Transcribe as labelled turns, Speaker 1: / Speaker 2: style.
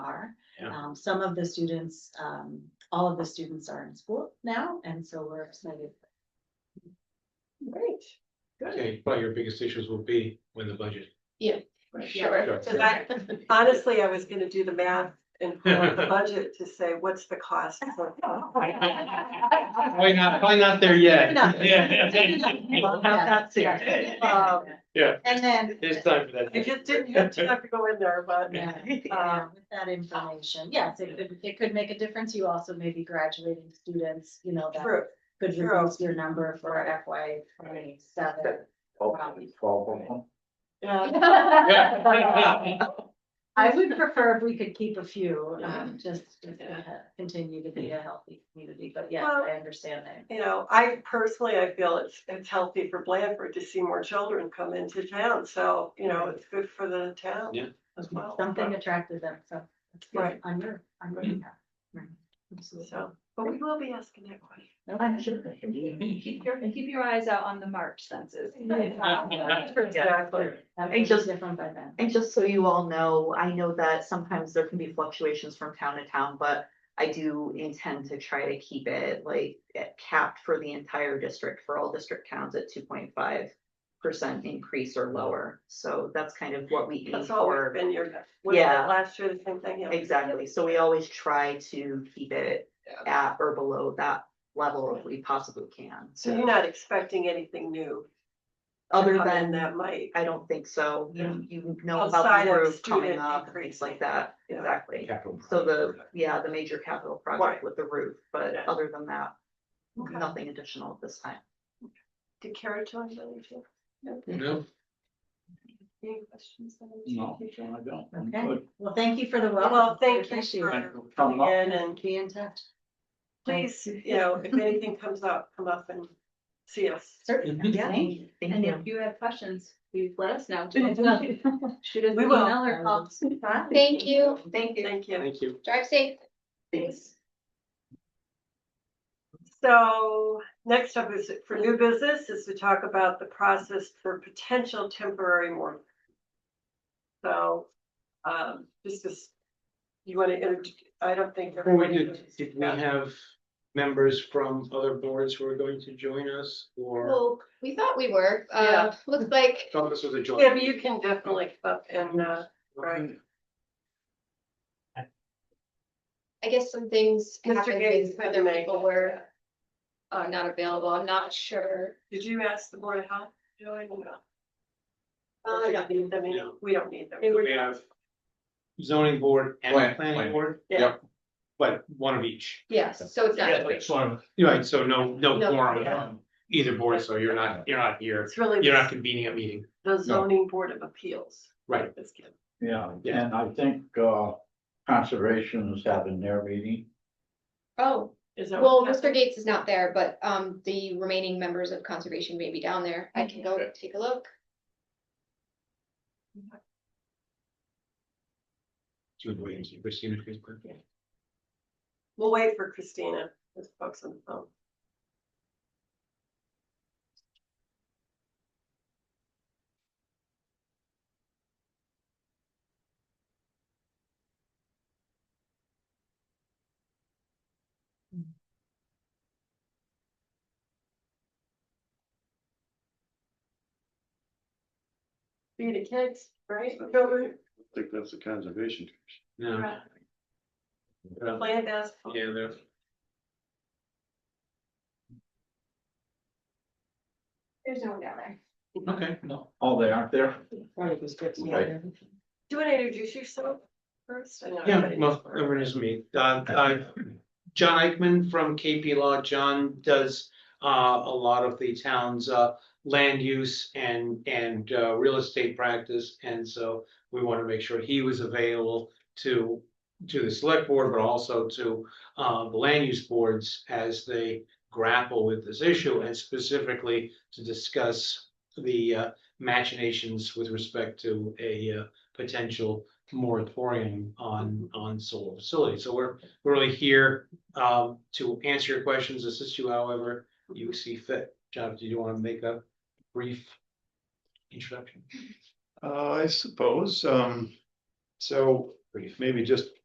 Speaker 1: are.
Speaker 2: Yeah.
Speaker 1: Um, some of the students, um, all of the students are in school now, and so we're excited.
Speaker 3: Great.
Speaker 2: Okay, probably your biggest issues will be when the budget.
Speaker 3: For
Speaker 1: Yeah.
Speaker 3: sure.
Speaker 2: Sure.
Speaker 3: Cause I, honestly, I was gonna do the math and pull out the budget to say, what's the cost? "Oh, for-
Speaker 2: Probably not, probably not there yet.
Speaker 1: No.
Speaker 2: Yeah.
Speaker 1: That's
Speaker 3: Um,
Speaker 1: And then.
Speaker 2: There's time for
Speaker 3: I
Speaker 2: that.
Speaker 3: just didn't have time to go in there, but. um,
Speaker 1: Yeah, yeah, uh, with that information, yes, it could, it could make a difference. You also may be graduating students, you know, that
Speaker 3: True,
Speaker 1: could
Speaker 3: True.
Speaker 1: reduce your number for FY twenty-seven.
Speaker 3: yeah,
Speaker 2: Yeah.
Speaker 1: I would prefer if we could keep a few, um, just to continue to be a healthy community, but yes,
Speaker 3: Well-
Speaker 1: I understand that.
Speaker 3: you know, I personally, I feel it's, it's healthy for Blandford to see more children come into town, so, you know, it's good for the town
Speaker 2: Yeah.
Speaker 3: as well.
Speaker 1: Something attracted them, so. it's good.
Speaker 3: Right.
Speaker 1: On your, on your behalf. Right. Absolutely.
Speaker 3: So, but we will be asking that question.
Speaker 1: No, I'm sure.
Speaker 4: Keep your, keep your eyes out on the March census.
Speaker 3: Exactly.
Speaker 1: That
Speaker 5: And
Speaker 1: was
Speaker 5: just-
Speaker 1: different by then.
Speaker 5: And just so you all know, I know that sometimes there can be fluctuations from town to town, but I do intend to try to keep it like at- capped for the entire district, for all district towns at two point five percent increase or lower. So that's kind of what we aim
Speaker 3: That's all we've
Speaker 5: for.
Speaker 3: been, you was it
Speaker 5: Yeah.
Speaker 3: last year, the same thing, yeah.
Speaker 5: Exactly. So we always try to keep it at or below that level if we possibly can.
Speaker 3: So you're not expecting anything new? to
Speaker 5: Other
Speaker 3: come in
Speaker 5: than,
Speaker 3: That might,
Speaker 5: I don't think so.
Speaker 2: Yeah.
Speaker 5: You, you know about
Speaker 3: Outside
Speaker 5: the
Speaker 3: of
Speaker 5: roof coming
Speaker 3: student
Speaker 5: up and things
Speaker 3: increase.
Speaker 5: like that.
Speaker 3: Yeah.
Speaker 5: Exactly.
Speaker 2: Capital
Speaker 5: So the,
Speaker 2: project.
Speaker 5: yeah, the major capital
Speaker 3: Right.
Speaker 5: project with the roof, but
Speaker 3: Yeah.
Speaker 5: other than that,
Speaker 3: Okay.
Speaker 5: nothing additional at this time.
Speaker 3: did Kara join the meeting?
Speaker 2: No,
Speaker 3: Any questions? that I should
Speaker 6: No,
Speaker 3: keep
Speaker 6: I
Speaker 3: going?
Speaker 6: don't. I'm
Speaker 1: Okay.
Speaker 6: good.
Speaker 1: Well, thank you for the welcome.
Speaker 3: Well, thank you
Speaker 1: Appreciate it.
Speaker 3: for
Speaker 6: Thank you for coming up.
Speaker 3: coming in and
Speaker 1: Be in touch.
Speaker 3: please, you know, if anything comes up, come up and see us.
Speaker 1: Certainly.
Speaker 5: Yeah.
Speaker 1: Thank you.
Speaker 5: Thank
Speaker 4: And
Speaker 5: you.
Speaker 4: if you have questions, please let us know. Shoot us an
Speaker 3: We will.
Speaker 4: email or call.
Speaker 7: Thank you.
Speaker 5: Thank you.
Speaker 3: Thank you.
Speaker 2: thank you.
Speaker 7: Drive safe.
Speaker 5: Thanks.
Speaker 3: So next up is for new business is to talk about the process for potential temporary work. So, um, this is, you want to, I don't think.
Speaker 2: Before we
Speaker 3: everybody
Speaker 2: do,
Speaker 3: knows.
Speaker 2: did we have members from other boards who are going to join us or?
Speaker 7: Well, we thought we were, uh,
Speaker 3: Yeah.
Speaker 7: looks like,
Speaker 2: Thought this was a
Speaker 3: Yeah,
Speaker 2: joint.
Speaker 3: but you can definitely come up and, uh, right.
Speaker 7: I guess some things
Speaker 3: Mr.
Speaker 7: happened
Speaker 3: Gates,
Speaker 7: because
Speaker 3: Heather
Speaker 7: other
Speaker 3: May.
Speaker 7: people were, uh, not available. I'm not sure.
Speaker 3: Did you ask the board how to join? or not?
Speaker 7: Uh,
Speaker 3: We
Speaker 7: no.
Speaker 3: don't need them any-
Speaker 2: No.
Speaker 3: We don't need them.
Speaker 2: We have zoning board and
Speaker 6: Plan-
Speaker 2: planning
Speaker 6: planning.
Speaker 2: board,
Speaker 3: Yeah,
Speaker 2: but one of each.
Speaker 7: Yes, so it's
Speaker 2: Yeah,
Speaker 7: not.
Speaker 2: like one. Right, so no, no
Speaker 7: No,
Speaker 2: quorum
Speaker 3: yeah.
Speaker 2: on either board, so you're not, you're not here,
Speaker 3: it's really
Speaker 2: you're not convening a meeting,
Speaker 3: the zoning board of appeals.
Speaker 2: Right.
Speaker 3: This kid.
Speaker 6: Yeah,
Speaker 2: Yeah.
Speaker 6: and I think, uh, conservation is having their meeting.
Speaker 7: Oh,
Speaker 3: Is that?
Speaker 7: well,
Speaker 3: what
Speaker 7: Mr.
Speaker 3: happened?
Speaker 7: Gates is not there, but, um, the remaining members of conservation may be down there. I can go take a look.
Speaker 2: Jude Williams, Christina Christopher.
Speaker 3: We'll wait for Christina, this folks on the phone. Be the kids, right? Children,
Speaker 8: think that's the conservation.
Speaker 2: No. Yeah,
Speaker 3: Planned as.
Speaker 2: they're.
Speaker 7: There's no one down there.
Speaker 2: Okay.
Speaker 6: Oh, they aren't there?
Speaker 3: Do you want to introduce yourself first? I know
Speaker 2: Yeah,
Speaker 3: everybody
Speaker 2: well,
Speaker 3: knows.
Speaker 2: everyone is me. Uh, uh, John Eichman from KP Law. John does uh, a lot of the town's uh, land use and, and uh, real estate practice. And so we want to make sure he was available to, to the select board, but also to uh, the land use boards as they grapple with this issue and specifically to discuss the uh, machinations with respect to a uh, potential moratorium on, on solar facilities. So we're, we're really here um, to answer your questions, assist you however you see fit. John, do you want to make a brief introduction?
Speaker 8: Uh, I suppose, um, so maybe just